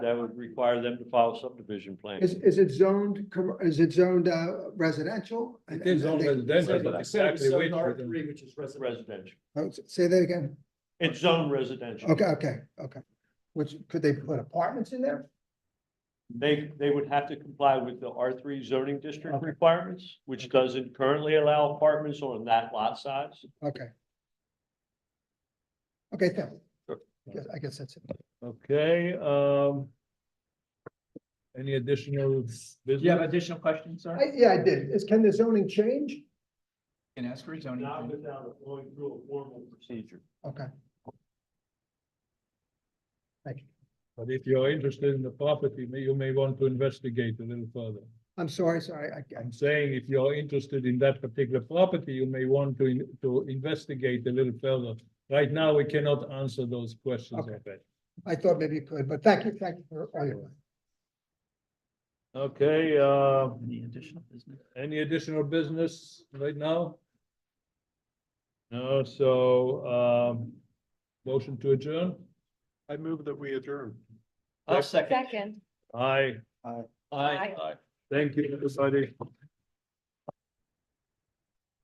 that would require them to file subdivision Is, plans. is it zoned, com- is it zoned uh, residential? It is all residential, exactly. which within- which is residential. Residential, Oh, Say that again. it's zone residential. Okay, okay, okay. Which, could they put apartments in there? They, they would have to comply with the R three zoning district requirements, which doesn't currently allow apartments on that lot size. Okay. Okay, thank you. Sure. Yes, I guess that's it. Okay, um. Any additional Do you have business? additional questions, sir? I- Yeah, I did. Is, can the zoning change? Can ask for zoning. Not without it going through a formal procedure. Okay, But if you're interested in the property, may- you may want to investigate a little further. I'm sorry, sorry, I, I- I'm saying if you're interested in that particular property, you may want to, in- to investigate a little further. Right now, we cannot answer those questions. I bet. I thought maybe you could, but thank you, thank you for all your work. Okay, uh, Any additional business? any additional business right now? No, so, um, motion to adjourn? I move that we adjourn. I'll second. Second. Aye. Aye. Thank you, everybody.